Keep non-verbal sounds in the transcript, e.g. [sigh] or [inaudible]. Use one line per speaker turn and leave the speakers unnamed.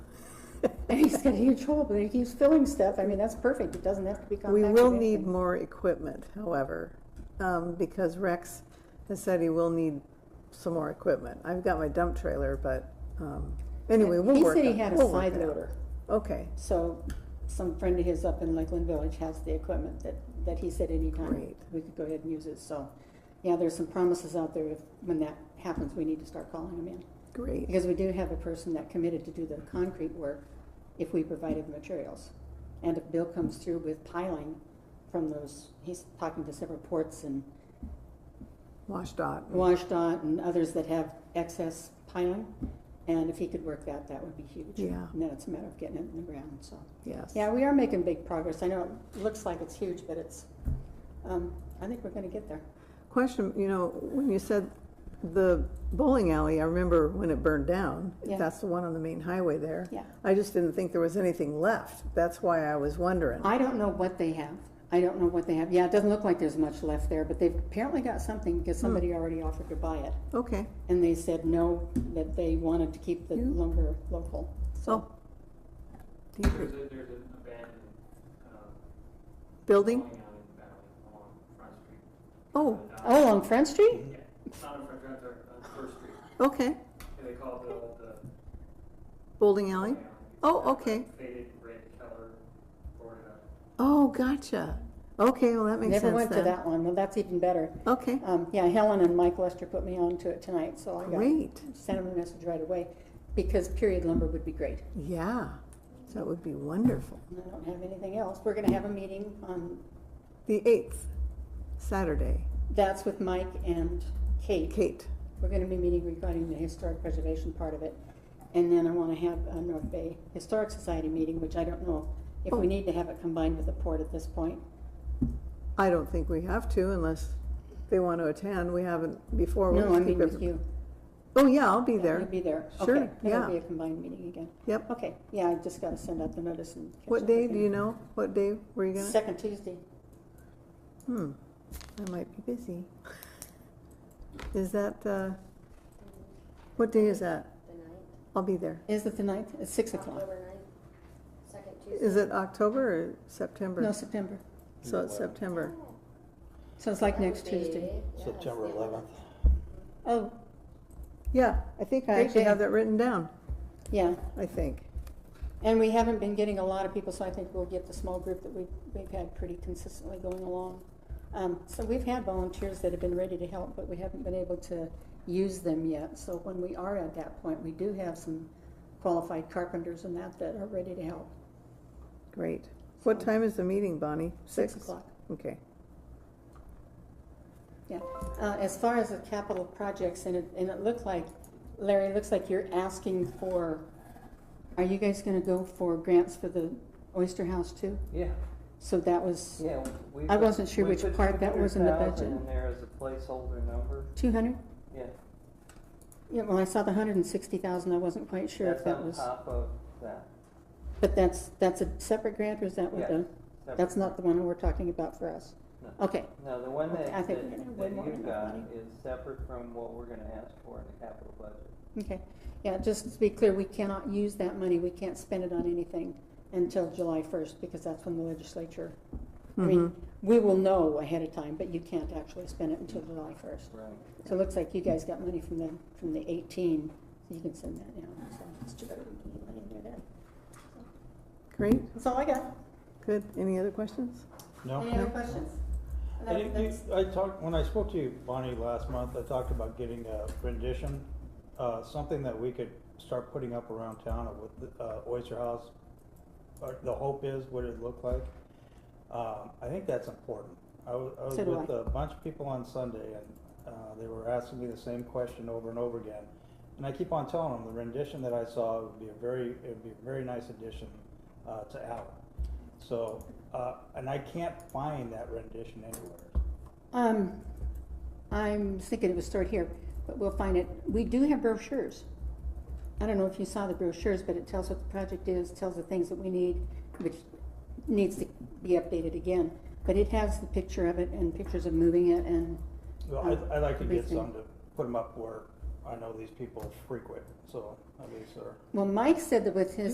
And [laughs] he's got huge hole, but he keeps filling stuff. I mean, that's perfect. It doesn't have to be
We
compacted.
will need more equipment, however, um, because Rex has said he will need some more equipment. I've got my dump trailer, but, um, anyway, we'll
He
work
said he
on-
had a
we'll work
side
it out.
loader.
Okay,
So some friend of his up in Lakeland Village has the equipment that, that he said anytime
Great.
we could go ahead and use it. So, yeah, there's some promises out there. If, when that happens, we need to start calling him in.
great,
Because we do have a person that committed to do the concrete work if we provided materials. And if Bill comes through with piling from those, he's talking to several ports and
WashDOT.
WashDOT and others that have excess piling. And if he could work that, that would be huge.
Yeah.
And then it's a matter of getting it in the ground, so.
Yes.
Yeah, we are making big progress. I know it looks like it's huge, but it's, um, I think we're gonna get there.
Question, you know, when you said the bowling alley, I remember when it burned down.
Yeah.
That's the one on the main highway there.
Yeah.
I just didn't think there was anything left. That's why I was wondering.
I don't know what they have. I don't know what they have. Yeah, it doesn't look like there's much left there, but they've apparently got something because
Hmm.
somebody already offered to buy it.
Okay,
And they said no, that they wanted to keep the
Yeah.
lumber local.
so.
So,
do you-
There's a, there's an abandoned, um.
Building?
bowling alley in the valley along Front Street.
Oh,
Uh,
oh, on Front Street?
Yeah, it's not on Front Street, it's on uh, First Street,
okay.
and they call it the, the.
Bowling alley?
bowling alley.
Oh,
It's got, like,
okay.
Faded red color, boarded up.
Oh, gotcha. Okay, well, that makes sense
Never
then.
went to that one. Well, that's even better.
Okay,
Um, yeah, Helen and Mike Lester put me on to it tonight, so I got,
great.
sent them a message right away. Because period lumber would be great.
Yeah, that would be wonderful.
And I don't have anything else. We're gonna have a meeting on,
The 8th, Saturday.
that's with Mike and Kate.
Kate,
We're gonna be meeting regarding the historic preservation part of it. And then I wanna have a North Bay Historic Society meeting, which I don't know if
Oh.
we need to have it combined with the port at this point.
I don't think we have to unless they want to attend. We haven't before. We'll
No, I
just keep
mean with
every-
you.
Oh, yeah, I'll be
Yeah,
there.
You'll be there.
Sure,
Okay,
yeah.
That'll be a combined meeting again.
Yep.
Okay, yeah, I just gotta send out the notice and. catch
What
up
day,
with
do you know? What day were you gonna?
Second Tuesday.
Hmm, I might be busy. Is that, uh, what day is that?
The ninth,
I'll be there.
Is it the ninth? It's six o'clock.
October ninth, second Tuesday.
Is it October or September?
No, September.
So it's September.
So it's like
That
next
would be-
Tuesday.
yeah,
September
that's the
11th.
Oh,
Yeah, I think I
Great
actually
day.
have that written down,
yeah.
I think.
And we haven't been getting a lot of people, so I think we'll get the small group that we've, we've had pretty consistently going along. Um, so we've had volunteers that have been ready to help, but we haven't been able to use them yet. So when we are at that point, we do have some qualified carpenters and that that are ready to help.
Great. What
So-
time is the meeting, Bonnie?
Six o'clock.
Okay.
Yeah, uh, as far as the capital projects, and it, and it looked like, Larry, it looks like you're asking for, are you guys gonna go for grants for the Oyster House too?
Yeah,
So that was
yeah. we
I
put-
wasn't sure
we
which
put
part that was in the
200,000
budget.
in there as a placeholder number,
two hundred?
yeah.
Yeah, well, I saw the hundred and sixty thousand, I wasn't quite sure if that was,
That's on top of that.
but that's, that's a separate grant, or is that what
Yeah,
the, that's not the one we're talking about for us?
No.
Okay,
No, the one that,
I
that
think we're gonna have way
that
more than
you've
enough
got
money.
is separate from what we're gonna ask for in the capital budget.
okay, yeah, just to be clear, we cannot use that money, we can't spend it on anything until July first, because that's when the legislature I
Mm-hmm.
mean, we will know ahead of time, but you can't actually spend it until July first.
Right.
So it looks like you guys got money from the, from the eighteen, so you can send that now. So it's too bad we didn't get money in there then.
Great,
That's all I got.
good. Any other questions?
Any other questions? And
And
that-
you- you-
that's-
I talked, when I spoke to you, Bonnie, last month, I talked about getting a rendition, uh, something that we could start putting up around town of what the, uh, Oyster House, or the hope is, what it looked like. Um, I think that's important. I was, I was
So do
with
I.
a bunch of people on Sunday and, uh, they were asking me the same question over and over again. And I keep on telling them, the rendition that I saw would be a very, it would be a very nice addition, uh, to Allen. So, uh, and I can't find that rendition anywhere.
Um, I'm thinking it was stored here, but we'll find it. We do have brochures. I don't know if you saw the brochures, but it tells what the project is, tells the things that we need, which needs to be updated again. But it has the picture of it and pictures of moving it and
Well, I'd, I'd like to get
Everything.
some to put them up where I know these people frequent, so at least they're.
Well, Mike said that with his